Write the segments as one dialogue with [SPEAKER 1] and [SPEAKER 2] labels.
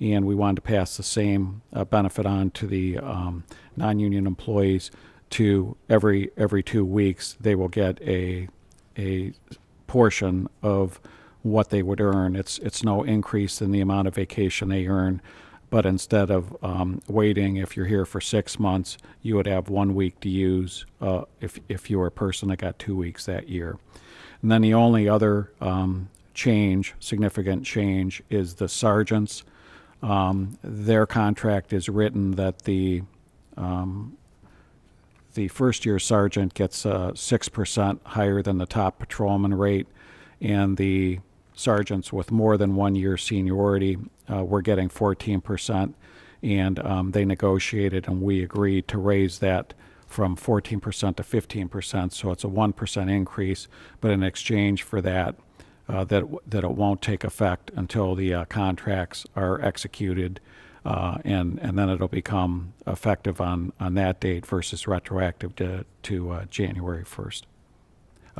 [SPEAKER 1] and we wanted to pass the same uh, benefit on to the um, non-union employees to every, every two weeks, they will get a, a portion of what they would earn. It's, it's no increase in the amount of vacation they earn, but instead of um, waiting, if you're here for six months, you would have one week to use uh, if, if you were a person that got two weeks that year. And then the only other um, change, significant change, is the sergeants. Um, Their contract is written that the, um, the first year sergeant gets uh, six percent higher than the top patrolman rate, and the sergeants with more than one year seniority uh, were getting fourteen percent, and um, they negotiated and we agreed to raise that from fourteen percent to fifteen percent. So it's a one percent increase, but in exchange for that, uh, that w- that it won't take effect until the uh, contracts are executed, uh, and and then it'll become effective on on that date versus retroactive to to uh, January first.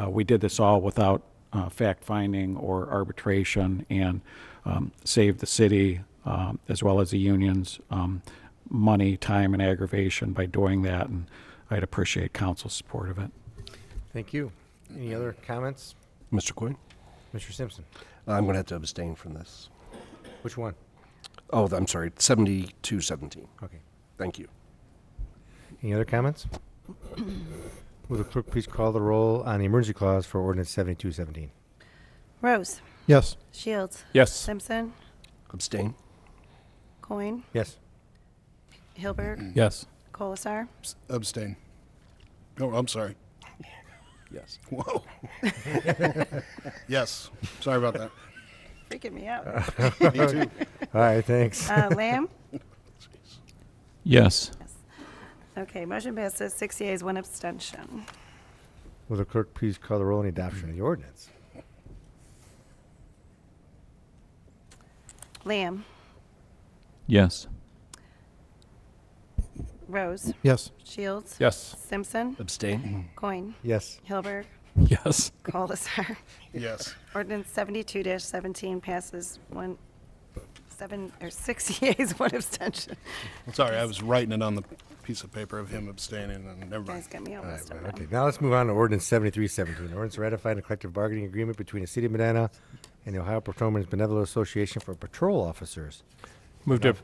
[SPEAKER 1] Uh, we did this all without uh, fact finding or arbitration, and um, saved the city um, as well as the unions um, money, time, and aggravation by doing that. And I'd appreciate council's support of it.
[SPEAKER 2] Thank you. Any other comments?
[SPEAKER 3] Mr. Coyne?
[SPEAKER 2] Mr. Simpson,
[SPEAKER 3] I'm going to have to abstain from this.
[SPEAKER 2] which one?
[SPEAKER 3] Oh, I'm sorry, 7217.
[SPEAKER 2] Okay.
[SPEAKER 3] Thank you.
[SPEAKER 2] Any other comments? Would the clerk please call the roll on the emergency clause for ordinance seventy-two seventeen?
[SPEAKER 4] Rose.
[SPEAKER 5] Yes.
[SPEAKER 4] Shields.
[SPEAKER 6] Yes.
[SPEAKER 4] Simpson.
[SPEAKER 3] Abstain?
[SPEAKER 4] Coin.
[SPEAKER 2] Yes.
[SPEAKER 4] Hilberg.
[SPEAKER 6] Yes.
[SPEAKER 4] Colasar.
[SPEAKER 7] Abstain. Oh, I'm sorry.
[SPEAKER 3] Yes.
[SPEAKER 7] Whoa. yes. Sorry about that.
[SPEAKER 4] Freaking me out.
[SPEAKER 7] Me too.
[SPEAKER 2] All right, thanks.
[SPEAKER 4] Uh, Lamb.
[SPEAKER 6] Yes.
[SPEAKER 4] Okay, motion passes. Six yeas, one abstention.
[SPEAKER 2] Will the clerk please call the roll on the adoption of the ordinance?
[SPEAKER 4] Lamb.
[SPEAKER 6] Yes.
[SPEAKER 4] Rose.
[SPEAKER 5] Yes.
[SPEAKER 4] Shields.
[SPEAKER 6] Yes.
[SPEAKER 4] Simpson.
[SPEAKER 3] Abstain?
[SPEAKER 4] Coin.
[SPEAKER 2] Yes.
[SPEAKER 4] Hilberg.
[SPEAKER 6] Yes.
[SPEAKER 4] Colasar.
[SPEAKER 7] Yes.
[SPEAKER 4] Ordinance seventy-two seventeen passes one, seven, or six yeas, one abstention.
[SPEAKER 7] Sorry, I was writing it on the piece of paper of him abstaining, and never
[SPEAKER 4] Guys
[SPEAKER 7] mind.
[SPEAKER 4] got me all messed up. now.
[SPEAKER 2] Okay, now let's move on to ordinance seventy-three seventeen. Ordinance ratifying a collective bargaining agreement between the city of Medina and the Ohio Patrolmen's Benevolent Association for Patrol Officers.
[SPEAKER 6] Move to,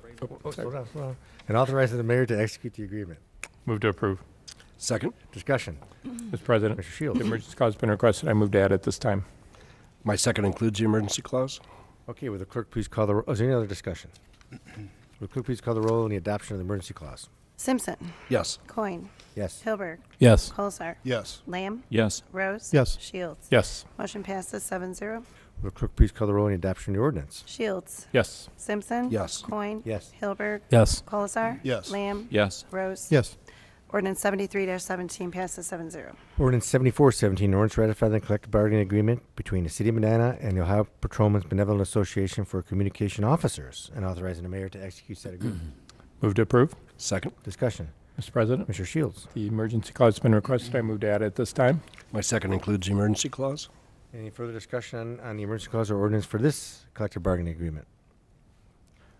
[SPEAKER 2] Oh, slow down, slow down. And authorizing the mayor to execute the agreement.
[SPEAKER 6] move to approve.
[SPEAKER 3] Second?
[SPEAKER 2] Discussion.
[SPEAKER 6] Mr. President,
[SPEAKER 2] Mr. Shields.
[SPEAKER 6] the emergency clause has been requested. I move to add it this time.
[SPEAKER 3] My second includes the emergency clause?
[SPEAKER 2] Okay, will the clerk please call the, ro- is there any other discussion? Will the clerk please call the roll on the adoption of the emergency clause?
[SPEAKER 4] Simpson.
[SPEAKER 3] Yes.
[SPEAKER 4] Coin.
[SPEAKER 2] Yes.
[SPEAKER 4] Hilberg.
[SPEAKER 6] Yes.
[SPEAKER 4] Colasar.
[SPEAKER 7] Yes.
[SPEAKER 4] Lamb.
[SPEAKER 6] Yes.
[SPEAKER 4] Rose.
[SPEAKER 5] Yes.
[SPEAKER 4] Shields.
[SPEAKER 6] Yes.
[SPEAKER 4] Motion passes seven zero.
[SPEAKER 2] Will the clerk please call the roll on the adoption of the ordinance?
[SPEAKER 4] Shields.
[SPEAKER 6] Yes.
[SPEAKER 4] Simpson.
[SPEAKER 3] Yes.
[SPEAKER 4] Coin.
[SPEAKER 2] Yes.
[SPEAKER 4] Hilberg.
[SPEAKER 6] Yes.
[SPEAKER 4] Colasar.
[SPEAKER 7] Yes.
[SPEAKER 4] Lamb.
[SPEAKER 6] Yes.
[SPEAKER 4] Rose.
[SPEAKER 5] Yes.
[SPEAKER 4] Ordinance seventy-three seventeen passes seven zero.
[SPEAKER 2] Ordinance seventy-four seventeen, ordinance ratifying the collective bargaining agreement between the city of Medina and the Ohio Patrolmen's Benevolent Association for Communication Officers and authorizing the mayor to execute said agreement.
[SPEAKER 6] Move to approve.
[SPEAKER 3] Second?
[SPEAKER 2] Discussion.
[SPEAKER 6] Mr. President,
[SPEAKER 2] Mr. Shields.
[SPEAKER 6] the emergency clause has been requested. I move to add it this time.
[SPEAKER 3] My second includes the emergency clause?
[SPEAKER 2] Any further discussion on, on the emergency clause or ordinance for this collective bargaining agreement?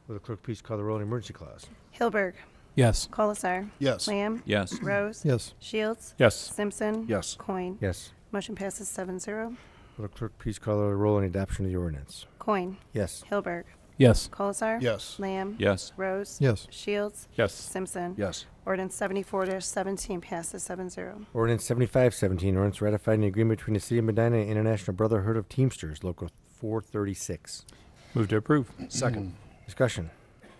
[SPEAKER 2] Will the clerk please call the roll on the emergency clause?
[SPEAKER 4] Hilberg.
[SPEAKER 6] Yes.
[SPEAKER 4] Colasar.
[SPEAKER 7] Yes.
[SPEAKER 4] Lamb.
[SPEAKER 6] Yes.
[SPEAKER 4] Rose.
[SPEAKER 5] Yes.
[SPEAKER 4] Shields.
[SPEAKER 6] Yes.
[SPEAKER 4] Simpson.
[SPEAKER 3] Yes.
[SPEAKER 4] Coin.
[SPEAKER 2] Yes.
[SPEAKER 4] Motion passes seven zero.
[SPEAKER 2] Will the clerk please call the roll on the adoption of the ordinance?
[SPEAKER 4] Coin.
[SPEAKER 2] Yes.
[SPEAKER 4] Hilberg.
[SPEAKER 6] Yes.
[SPEAKER 4] Colasar.
[SPEAKER 7] Yes.
[SPEAKER 4] Lamb.
[SPEAKER 6] Yes.
[SPEAKER 4] Rose.
[SPEAKER 5] Yes.
[SPEAKER 4] Shields.
[SPEAKER 6] Yes.
[SPEAKER 4] Simpson.
[SPEAKER 3] Yes.
[SPEAKER 4] Ordinance seventy-four seventeen passes seven zero.
[SPEAKER 2] Ordinance seventy-five seventeen, ordinance ratifying the agreement between the City of Medina and International Brotherhood of Teamsters, Local four thirty-six.
[SPEAKER 6] Move to approve.
[SPEAKER 3] Second?
[SPEAKER 2] Discussion.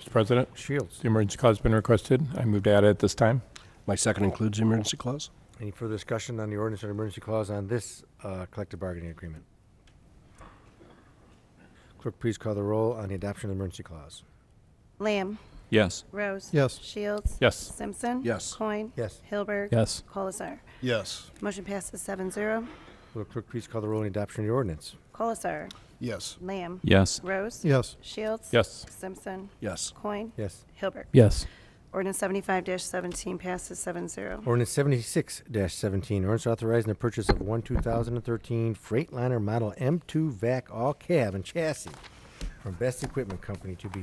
[SPEAKER 6] Mr. President,
[SPEAKER 2] Shields.
[SPEAKER 6] the emergency clause has been requested. I move to add it this time.
[SPEAKER 3] My second includes the emergency clause?
[SPEAKER 2] Any further discussion on the ordinance and emergency clause on this uh, collective bargaining agreement? Clerk, please call the roll on the adoption of the emergency clause.
[SPEAKER 4] Lamb.
[SPEAKER 6] Yes.
[SPEAKER 4] Rose.
[SPEAKER 5] Yes.
[SPEAKER 4] Shields.
[SPEAKER 6] Yes.
[SPEAKER 4] Simpson.
[SPEAKER 3] Yes.
[SPEAKER 4] Coin.
[SPEAKER 2] Yes.
[SPEAKER 4] Hilberg.
[SPEAKER 6] Yes.
[SPEAKER 4] Colasar.
[SPEAKER 7] Yes.
[SPEAKER 4] Motion passes seven zero.
[SPEAKER 2] Will the clerk please call the roll on the adoption of the ordinance?
[SPEAKER 4] Colasar.
[SPEAKER 7] Yes.
[SPEAKER 4] Lamb.
[SPEAKER 6] Yes.
[SPEAKER 4] Rose.
[SPEAKER 5] Yes.
[SPEAKER 4] Shields.
[SPEAKER 6] Yes.
[SPEAKER 4] Simpson.
[SPEAKER 3] Yes.
[SPEAKER 4] Coin.
[SPEAKER 2] Yes.
[SPEAKER 4] Hilberg.
[SPEAKER 6] Yes.
[SPEAKER 4] Ordinance seventy-five seventeen passes seven zero.
[SPEAKER 2] Ordinance seventy-six seventeen, ordinance authorizing the purchase of one two thousand and thirteen Freightliner Model M two VAC all cab and chassis from Best Equipment Company to be